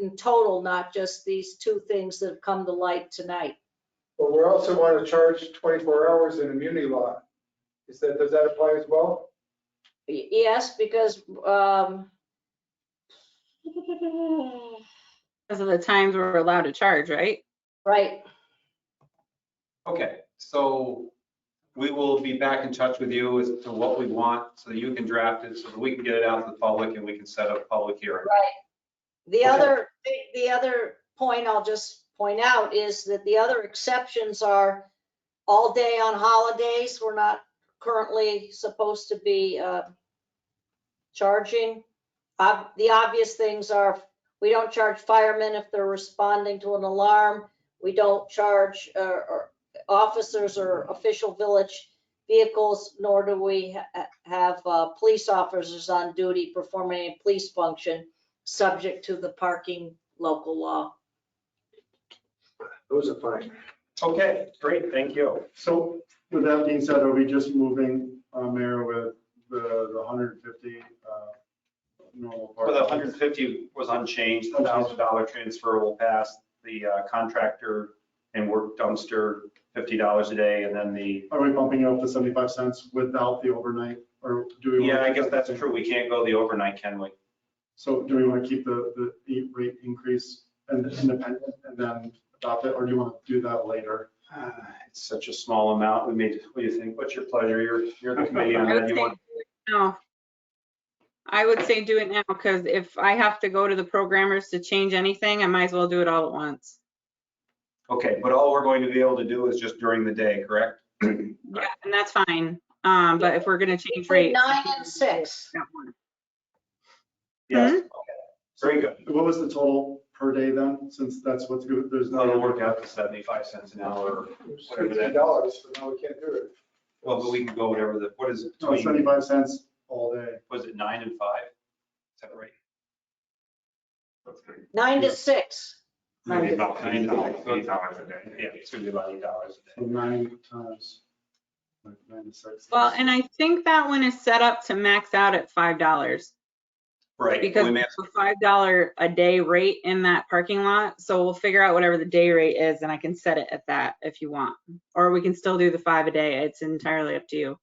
in total, not just these two things that have come to light tonight. But we also want to charge 24 hours in immunity law. Is that, does that apply as well? Y- Yes, because, um, Because of the times we're allowed to charge, right? right, Okay, so we will be back in touch with you as to what we want, so that you can draft it, so that we can get it out to the public and we can set up a public hearing. The Okay. other, the- the other point I'll just point out is that the other exceptions are all day on holidays. We're not currently supposed to be uh, charging. Ob- The obvious things are, we don't charge firemen if they're responding to an alarm. We don't charge uh, or officers or official village vehicles, nor do we ha- ha- have uh, police officers on duty performing a police function subject to the parking local law. Those are fine. Okay, great, thank you. So with that being said, are we just moving, uh, Mayor, with the, the hundred and fifty, uh, normal For part? the 150 was unchanged, the $1,000 transfer will pass, the uh, contractor and work dumpster, $50 a day, and then the, Are we bumping it up to seventy-five cents without the overnight, or do we? wanna- yeah, I guess that's true, we can't go the overnight, can we? So do we want to keep the, the eight rate increase and independent and then adopt it, or do you want to do that later? Ah, It's such a small amount, we made, what do you think, what's your pleasure, you're, you're the committee on I that, would say you do want, it now. I would say do it now, because if I have to go to the programmers to change anything, I might as well do it all at once. okay, but all we're going to be able to do is just during the day, correct? Yeah, and that's fine. Um, but if we're gonna change Between rates. nine and six. that one. Yes, okay, very good. What was the total per day then, since that's what's good, there's no. That'll work out to 75 cents an hour, It's Whatever $15, that- so now we can't do it. well, but we can go whatever the, what is it, No, between, Oh, seventy-five cents all day. was it nine and five? Is that right? Nine to six. Maybe about Nine eight dollars. dollars, eight dollars a day. Yeah, it's gonna be about $8 a So day. nine times, like ninety-six. Well, and I think that one is set up to max out at five dollars. Right. Because we may- it's a five dollar a day rate in that parking lot, so we'll figure out whatever the day rate is and I can set it at that if you want. Or we can still do the five a day, it's entirely up to you.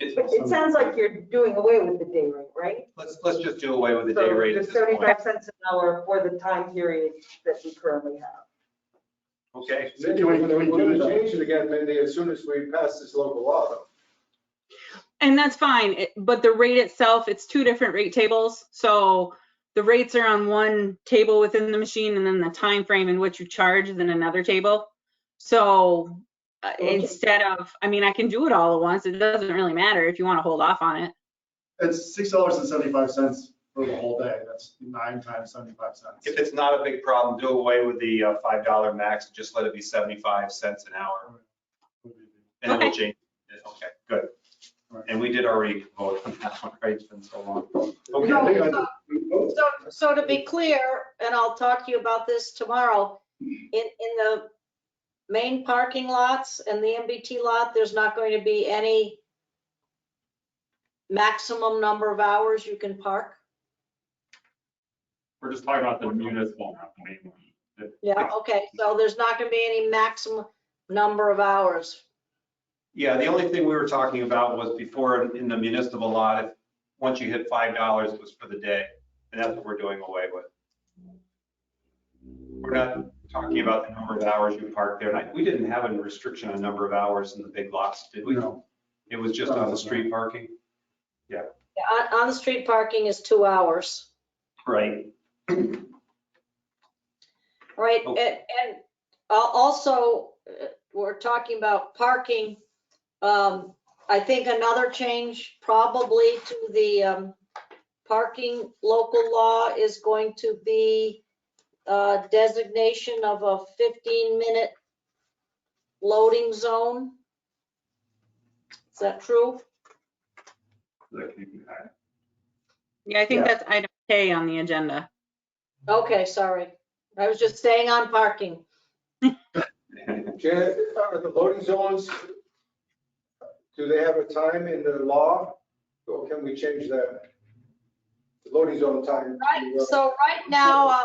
It- But it sounds like you're doing away with the day rate, right? Let's, let's just do away with the day rate at So this the point. 75 cents an hour for the time period that we currently have. Okay, Then Do we- we're do we do going to that? change it again, Mindy, as soon as we pass this local law. though. And that's fine, it- but the rate itself, it's two different rate tables, so the rates are on one table within the machine and then the time frame in which you charge is in another table. So uh, Okay. instead of, I mean, I can do it all at once, it doesn't really matter if you want to hold off on it. It's six dollars and seventy-five cents for the whole day, that's nine times seventy-five if cents. it's not a big problem, do away with the uh, $5 max, just let it be 75 cents an hour. And then we'll change it. Okay, good. And we did already vote on that one, right? It's been so long. Okay. No, Okay. uh, so- So, so to be clear, and I'll talk to you about this tomorrow, in, in the main parking lots and the MBT lot, there's not going to be any maximum number of hours you can park? We're just talking about the municipal, not the main one. The- Yeah, okay, so there's not going to be any maximum number of hours. Yeah, the only thing we were talking about was before in- in the municipal lot, if, once you hit five dollars, it was for the day. And that's what we're doing away with. We're not talking about the number of hours you park there. And I- we didn't have a restriction on number of hours in the big lots, did we? No. It was just on the street parking? Yeah, On, on the street parking is two hours. Right. Right, Oh. and, and al- also, uh, we're talking about parking. Um, I think another change probably to the, um, parking local law is going to be, uh, designation of a fifteen minute loading zone. Is that true? Yeah, I think Yeah. that's item K on the agenda. Okay, sorry. I was just staying on parking. Janet, are the loading zones, do they have a time in the law? Or can we change that? The Loading zone time. to, Right, uh, so right now, uh,